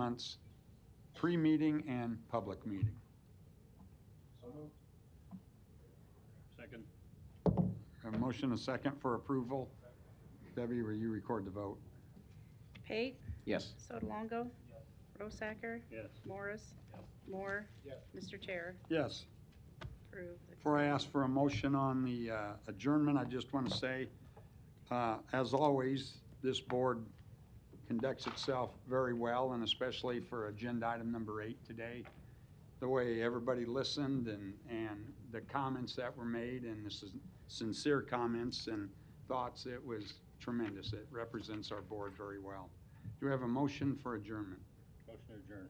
months, pre-meeting and public meeting. Second. A motion, a second for approval. Debbie, will you record the vote? Pate, Yes. Sotolongo, Rosacker, Yes. Morris, Moore. Mr. Chair, Yes. approve. Before I ask for a motion on the uh, adjournment, I just want to say, uh, as always, this board conducts itself very well, and especially for agenda item number eight today. The way everybody listened and, and the comments that were made, and this is sincere comments and thoughts, it was tremendous. It represents our board very well. Do we have a motion for adjournment? Motion to adjourn.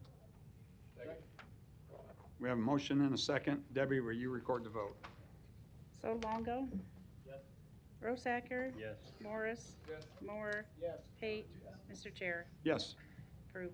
We have a motion and a second. Debbie, will you record the vote? Sotolongo. Yes. Rosacker, Yes. Morris. Moore. Pate, Mr. Chair, Yes. approve.